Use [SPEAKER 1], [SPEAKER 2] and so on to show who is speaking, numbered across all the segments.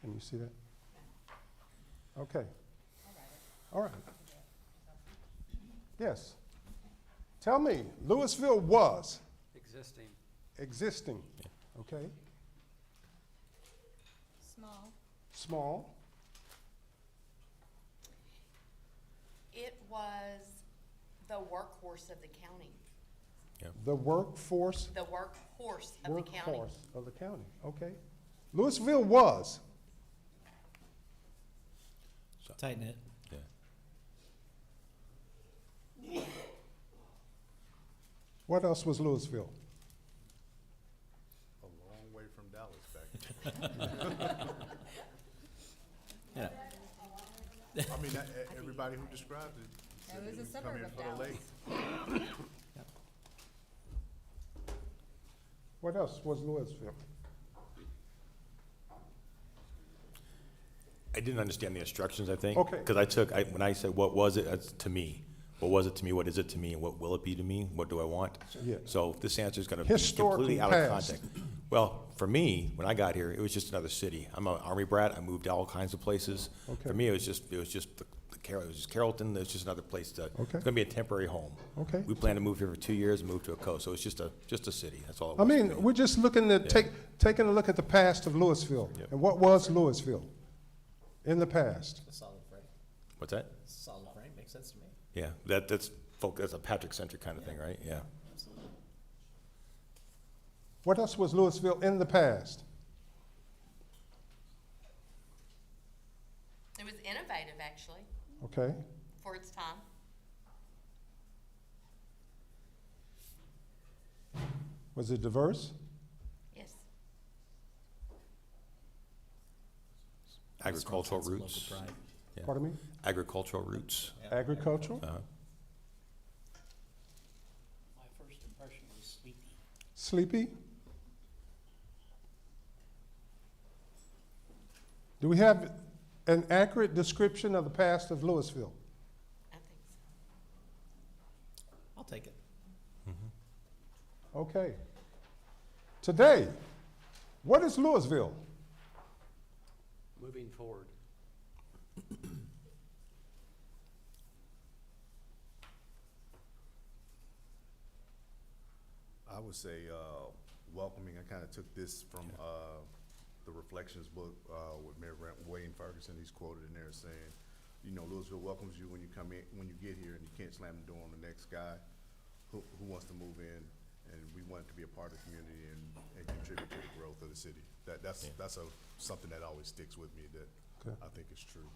[SPEAKER 1] Can you see that? Okay. All right. Yes. Tell me, Louisville was
[SPEAKER 2] Existing.
[SPEAKER 1] existing, okay?
[SPEAKER 3] Small.
[SPEAKER 1] Small,
[SPEAKER 4] It was the workhorse of the county,
[SPEAKER 1] the workforce,
[SPEAKER 4] the workhorse of the county.
[SPEAKER 1] workforce of the county, okay? Louisville was
[SPEAKER 5] Tighten it.
[SPEAKER 6] Yeah.
[SPEAKER 1] What else was Louisville?
[SPEAKER 7] a long way from Dallas back then.
[SPEAKER 5] Yeah.
[SPEAKER 7] I mean, that- e- everybody who described it said
[SPEAKER 3] It
[SPEAKER 7] it
[SPEAKER 3] was
[SPEAKER 7] was
[SPEAKER 3] a
[SPEAKER 7] coming
[SPEAKER 3] suburb
[SPEAKER 7] in
[SPEAKER 3] of
[SPEAKER 7] for the
[SPEAKER 3] Dallas.
[SPEAKER 7] lake.
[SPEAKER 1] What else was Louisville?
[SPEAKER 6] I didn't understand the instructions, I think.
[SPEAKER 1] Okay.
[SPEAKER 6] Because I took, I, when I said, what was it, that's to me. What was it to me, what is it to me, and what will it be to me, what do I want?
[SPEAKER 1] Yeah.
[SPEAKER 6] So this answer's gonna be
[SPEAKER 1] Historically
[SPEAKER 6] completely out of
[SPEAKER 1] past.
[SPEAKER 6] context. Well, for me, when I got here, it was just another city. I'm an army brat, I moved all kinds of places.
[SPEAKER 1] Okay.
[SPEAKER 6] For me, it was just, it was just the the Carroll, it was just Carrollton, it was just another place to,
[SPEAKER 1] Okay.
[SPEAKER 6] it's gonna be a temporary home.
[SPEAKER 1] Okay.
[SPEAKER 6] We plan to move here for two years, and move to a coast, so it's just a, just a city, that's all it
[SPEAKER 1] I
[SPEAKER 6] was.
[SPEAKER 1] mean, we're just looking at, take, taking a look at the past of Louisville.
[SPEAKER 6] Yep.
[SPEAKER 1] And what was Louisville in the past?
[SPEAKER 5] A solid frame.
[SPEAKER 6] What's that?
[SPEAKER 5] Solid frame makes sense to me.
[SPEAKER 6] Yeah, that, that's, folk- that's a Patrick-centric kind of thing, right? Yeah.
[SPEAKER 5] Absolutely.
[SPEAKER 1] What else was Louisville in the past?
[SPEAKER 4] It was innovative, actually,
[SPEAKER 1] Okay,
[SPEAKER 4] for its time.
[SPEAKER 1] was it diverse?
[SPEAKER 4] Yes,
[SPEAKER 6] Agricultural
[SPEAKER 5] Local
[SPEAKER 6] roots.
[SPEAKER 5] pride.
[SPEAKER 6] Yeah.
[SPEAKER 1] Pardon me?
[SPEAKER 6] agricultural roots.
[SPEAKER 1] Agricultural?
[SPEAKER 6] Uh,
[SPEAKER 8] My first impression was sleepy.
[SPEAKER 1] Sleepy? Do we have an accurate description of the past of Louisville?
[SPEAKER 4] I think so.
[SPEAKER 5] I'll take it.
[SPEAKER 1] Okay. Today, what is Louisville?
[SPEAKER 2] Moving forward.
[SPEAKER 7] I would say, uh, welcoming, I kinda took this from, uh, the Reflections book, uh, with Mayor Ra- Wayne Ferguson, he's quoted in there saying, you know, Louisville welcomes you when you come in, when you get here and you can't slam the door on the next guy who, who wants to move in, and we want to be a part of the community and, and contribute to the growth of the city. That, that's, that's a, something that always sticks with me that
[SPEAKER 1] Okay.
[SPEAKER 7] I think is true.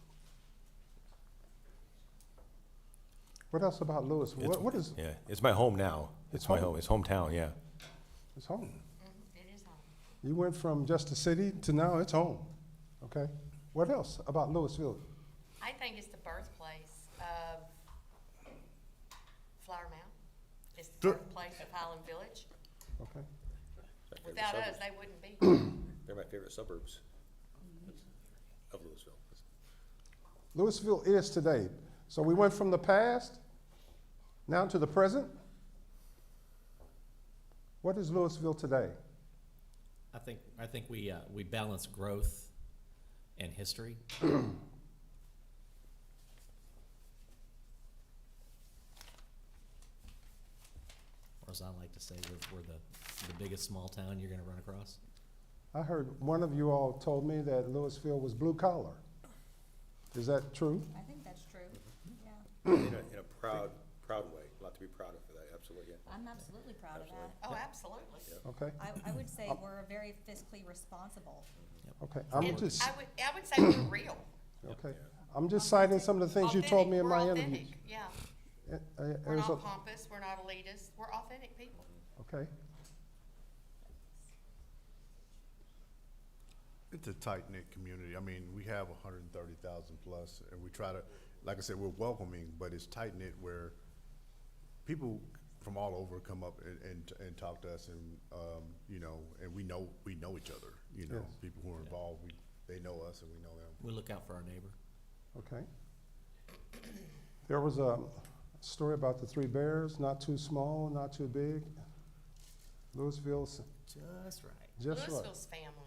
[SPEAKER 1] What else about Louisville?
[SPEAKER 6] it's-
[SPEAKER 1] What, what is
[SPEAKER 6] Yeah, it's my home now.
[SPEAKER 1] It's
[SPEAKER 6] It's my
[SPEAKER 1] home.
[SPEAKER 6] home, it's hometown, yeah.
[SPEAKER 1] it's home?
[SPEAKER 4] Mhm, It is home.
[SPEAKER 1] You went from just a city to now it's home. Okay. What else about Louisville?
[SPEAKER 4] I think it's the birthplace of Flower Mound. It's the
[SPEAKER 7] Sure.
[SPEAKER 4] birthplace of Highland Village.
[SPEAKER 1] Okay.
[SPEAKER 4] Without us, they wouldn't be.
[SPEAKER 6] They're my favorite suburbs
[SPEAKER 4] Mm-hmm.
[SPEAKER 6] of Louisville.
[SPEAKER 1] Louisville is today. So we went from the past now to the present. What is Louisville today?
[SPEAKER 5] I think, I think we, uh, we balance growth and history. Or as I like to say, we're, we're the, the biggest small town you're gonna run across.
[SPEAKER 1] I heard one of you all told me that Louisville was blue collar. Is that true?
[SPEAKER 3] I think that's true, yeah.
[SPEAKER 6] In a, in a proud, proud way, a lot to be proud of for that, absolutely, yeah.
[SPEAKER 3] I'm absolutely proud of that.
[SPEAKER 4] Oh, absolutely.
[SPEAKER 1] Okay.
[SPEAKER 3] I, I would say we're very fiscally responsible.
[SPEAKER 1] Okay. I'm
[SPEAKER 4] And
[SPEAKER 1] just
[SPEAKER 4] I would, I would say we're real.
[SPEAKER 1] okay. I'm just citing some of the things you told me
[SPEAKER 4] Authentic.
[SPEAKER 1] in
[SPEAKER 4] We're
[SPEAKER 1] my
[SPEAKER 4] authentic,
[SPEAKER 1] interviews.
[SPEAKER 4] Yeah,
[SPEAKER 1] Uh, uh,
[SPEAKER 4] we're
[SPEAKER 1] there's a-
[SPEAKER 4] not pompous, we're not elitist, we're authentic people.
[SPEAKER 1] Okay.
[SPEAKER 7] It's a tight knit community. I mean, we have hundred and thirty thousand plus and we try to, like I said, we're welcoming, but it's tight knit where people from all over come up and, and, and talk to us and, um, you know, and we know, we know each other, you know?
[SPEAKER 1] Yes.
[SPEAKER 7] People who are involved, we, they know us and we know them.
[SPEAKER 5] We look out for our neighbor.
[SPEAKER 1] Okay. There was a story about the three bears, not too small, not too big. Louisville's
[SPEAKER 5] Just right.
[SPEAKER 1] just right.
[SPEAKER 4] Louisville's family.